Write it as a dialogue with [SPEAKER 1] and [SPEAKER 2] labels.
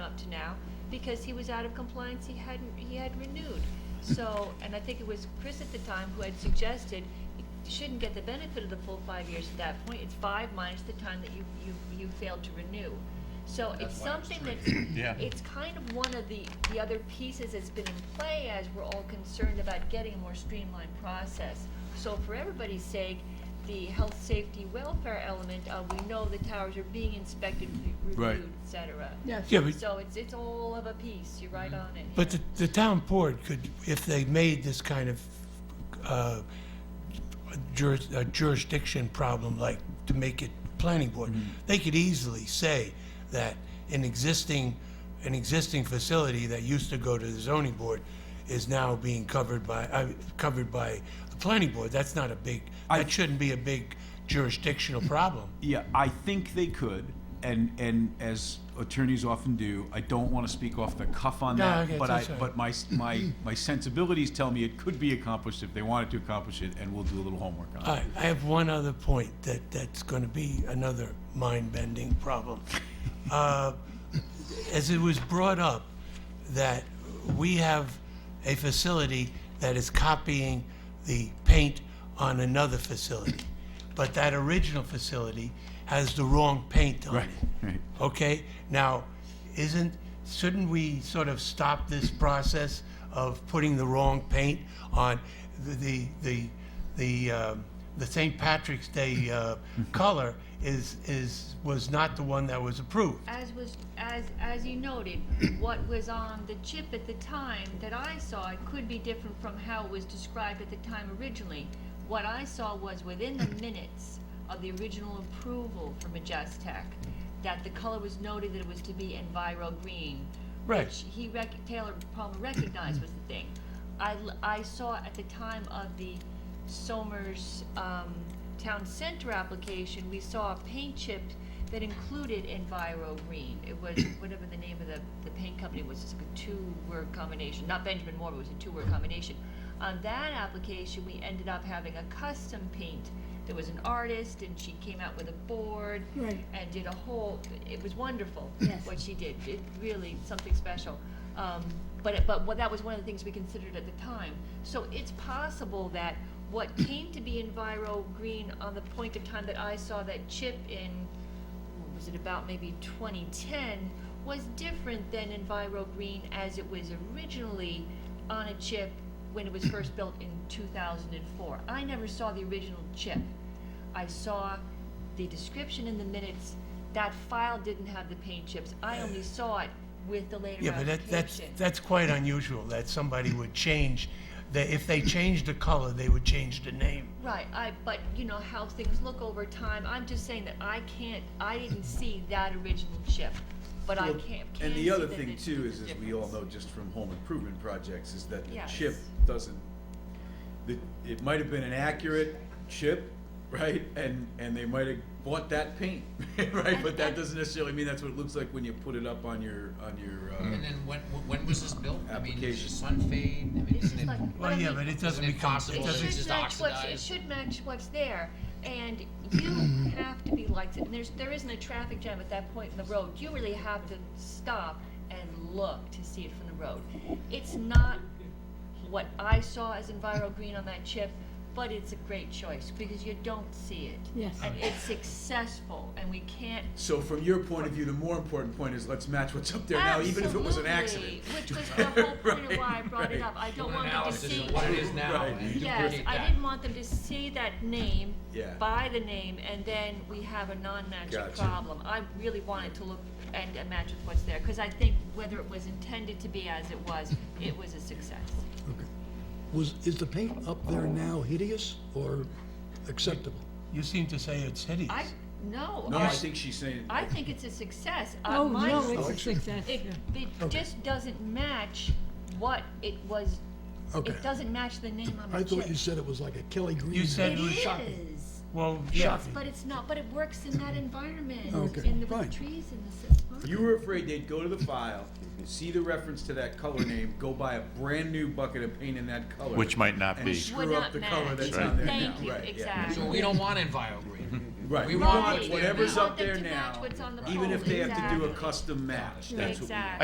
[SPEAKER 1] now, because he was out of compliance, he hadn't, he had renewed. So, and I think it was Chris at the time who had suggested, you shouldn't get the benefit of the full five years at that point, it's five minus the time that you, you, you failed to renew. So it's
[SPEAKER 2] That's why it's
[SPEAKER 1] something
[SPEAKER 2] three.
[SPEAKER 1] that's,
[SPEAKER 3] Yeah.
[SPEAKER 1] it's kind of one of the, the other pieces that's been in play as we're all concerned about getting a more streamlined process. So for everybody's sake, the health, safety, welfare element, uh, we know the towers are being inspected, re-
[SPEAKER 3] Right.
[SPEAKER 1] reviewed, et cetera.
[SPEAKER 4] Yes.
[SPEAKER 5] Yeah, but,
[SPEAKER 1] So it's, it's all of a piece, you're right on it.
[SPEAKER 5] Mm-hmm. but the, the town board could, if they made this kind of uh, juris- a jurisdiction problem, like to make it planning board, they could easily say that an existing, an existing facility that used to go to the zoning board is now being covered by, uh, covered by the planning board. That's not a big,
[SPEAKER 2] I-
[SPEAKER 5] that shouldn't be a big jurisdictional problem.
[SPEAKER 2] Yeah, I think they could, and, and as attorneys often do, I don't want to speak off the cuff on
[SPEAKER 5] No,
[SPEAKER 2] that,
[SPEAKER 5] okay,
[SPEAKER 2] but I,
[SPEAKER 5] that's all right.
[SPEAKER 2] but my, my, my sensibilities tell me it could be accomplished if they wanted to accomplish it, and we'll do a little homework on it.
[SPEAKER 5] All right, I have one other point that, that's going to be another mind-bending problem. Uh, As it was brought up, that we have a facility that is copying the paint on another facility, but that original facility has the wrong paint on it.
[SPEAKER 2] Right, right.
[SPEAKER 5] Okay, now, isn't, shouldn't we sort of stop this process of putting the wrong paint on the, the, the, the, um, the St. Patrick's Day, uh, color is, is, was not the one that was approved?
[SPEAKER 1] As was, as, as you noted, what was on the chip at the time that I saw, it could be different from how it was described at the time originally. What I saw was within the minutes of the original approval for Majestec, that the color was noted that it was to be Enviro Green.
[SPEAKER 5] Right.
[SPEAKER 1] Which he rec, Taylor Palmer recognized was the thing. I, l- I saw at the time of the Somers, um, Town Center application, we saw a paint chip that included Enviro Green. It was, whatever the name of the, the paint company was, it's like a two-word combination, not Benjamin Moore, but it was a two-word combination. On that application, we ended up having a custom paint. There was an artist, and she came out with a board.
[SPEAKER 4] Right.
[SPEAKER 1] And did a whole, it was wonderful,
[SPEAKER 4] Yes.
[SPEAKER 1] what she did, it really, something special. Um, but, it- but what- that was one of the things we considered at the time. So it's possible that what came to be Enviro Green on the point of time that I saw that chip in, what was it about maybe 2010, was different than Enviro Green as it was originally on a chip when it was first built in 2004. I never saw the original chip. I saw the description in the minutes. That file didn't have the paint chips. I only saw it with the later
[SPEAKER 5] Yeah, but that, that's,
[SPEAKER 1] application.
[SPEAKER 5] that's quite unusual, that somebody would change, that if they changed the color, they would change the name.
[SPEAKER 1] Right, I, but you know how things look over time. I'm just saying that I can't, I didn't see that original chip, but I
[SPEAKER 6] Well,
[SPEAKER 1] can't, can
[SPEAKER 6] And
[SPEAKER 1] see
[SPEAKER 6] the other
[SPEAKER 1] that
[SPEAKER 6] thing
[SPEAKER 1] it-
[SPEAKER 6] too
[SPEAKER 1] it's
[SPEAKER 6] is,
[SPEAKER 1] a
[SPEAKER 6] as we all
[SPEAKER 1] difference.
[SPEAKER 6] know, just from home improvement projects, is that the
[SPEAKER 1] Yes.
[SPEAKER 6] chip doesn't, the, it might have been an accurate chip, right? And, and they might have bought that paint, right? But that doesn't necessarily mean that's what it looks like when you put it up on your, on your,
[SPEAKER 2] And
[SPEAKER 6] uh,
[SPEAKER 2] then when, when was this built? I mean, is
[SPEAKER 6] Application.
[SPEAKER 2] the sun fade? I mean,
[SPEAKER 1] This
[SPEAKER 2] isn't
[SPEAKER 1] is
[SPEAKER 2] it-
[SPEAKER 1] like-
[SPEAKER 5] Well, yeah, but it doesn't
[SPEAKER 2] Isn't it
[SPEAKER 5] become, it
[SPEAKER 2] possible
[SPEAKER 5] doesn't,
[SPEAKER 1] It
[SPEAKER 2] It's
[SPEAKER 1] should
[SPEAKER 2] just
[SPEAKER 1] match what's, it
[SPEAKER 2] oxidized.
[SPEAKER 1] should match what's there, and you have to be like, and there's, there isn't a traffic jam at that point in the road, you really have to stop and look to see it from the road. It's not what I saw as Enviro Green on that chip, but it's a great choice, because you don't see it.
[SPEAKER 4] Yes.
[SPEAKER 1] And it's successful, and we can't
[SPEAKER 6] so from your point of view, the more important point is let's match what's up there now, even if it was an accident.
[SPEAKER 1] Absolutely, Which was the whole point of why I brought it
[SPEAKER 6] Right,
[SPEAKER 1] up, I don't
[SPEAKER 2] An
[SPEAKER 1] want them to
[SPEAKER 2] analysis
[SPEAKER 1] see.
[SPEAKER 2] of what it is now.
[SPEAKER 6] Right.
[SPEAKER 2] and
[SPEAKER 1] Yes,
[SPEAKER 2] duplicate
[SPEAKER 1] I
[SPEAKER 2] that.
[SPEAKER 1] didn't want them to see that name.
[SPEAKER 6] Yeah.
[SPEAKER 1] By the name, and then we have a non-matching
[SPEAKER 6] Gotcha.
[SPEAKER 1] problem. I really wanted to look and uh, match with what's there, because I think whether it was intended to be as it was, it was a success.
[SPEAKER 7] Okay. Was, is the paint up there now hideous or acceptable?
[SPEAKER 5] you seem to say it's hideous.
[SPEAKER 1] I, no,
[SPEAKER 6] No, I
[SPEAKER 1] I,
[SPEAKER 6] think she's saying.
[SPEAKER 1] I think it's a success. Uh,
[SPEAKER 4] Oh,
[SPEAKER 1] my-
[SPEAKER 4] no, it's
[SPEAKER 7] Oh,
[SPEAKER 4] a
[SPEAKER 7] it's-
[SPEAKER 4] success,
[SPEAKER 1] It,
[SPEAKER 4] yeah.
[SPEAKER 1] it
[SPEAKER 7] Okay.
[SPEAKER 1] just doesn't match what it was,
[SPEAKER 7] Okay.
[SPEAKER 1] it doesn't match the name on the
[SPEAKER 7] I
[SPEAKER 1] chip.
[SPEAKER 7] thought you said it was like a Kelly Green.
[SPEAKER 5] You said
[SPEAKER 1] It
[SPEAKER 5] it was shocking.
[SPEAKER 1] is.
[SPEAKER 5] Well, yeah.
[SPEAKER 1] Yes, but it's not, but it works in that environment,
[SPEAKER 7] Okay,
[SPEAKER 1] in the
[SPEAKER 7] fine.
[SPEAKER 1] trees and the. s-
[SPEAKER 6] You were afraid they'd go to the file, see the reference to that color name, go buy a brand new bucket of paint in that color.
[SPEAKER 3] Which might not be.
[SPEAKER 6] And screw up the color that's
[SPEAKER 3] Right.
[SPEAKER 6] on there now, right?
[SPEAKER 1] Thank you,
[SPEAKER 6] yeah.
[SPEAKER 1] exactly.
[SPEAKER 2] So we don't want Enviro green.
[SPEAKER 6] Right,
[SPEAKER 2] We
[SPEAKER 6] we
[SPEAKER 2] want
[SPEAKER 6] want
[SPEAKER 2] what's there
[SPEAKER 6] whatever's
[SPEAKER 1] now.
[SPEAKER 6] up there
[SPEAKER 1] We want them to match
[SPEAKER 6] now,
[SPEAKER 1] what's on the
[SPEAKER 6] even
[SPEAKER 1] pole,
[SPEAKER 6] if they have to do a
[SPEAKER 1] exactly.
[SPEAKER 6] custom match, that's what we want.
[SPEAKER 1] Exactly.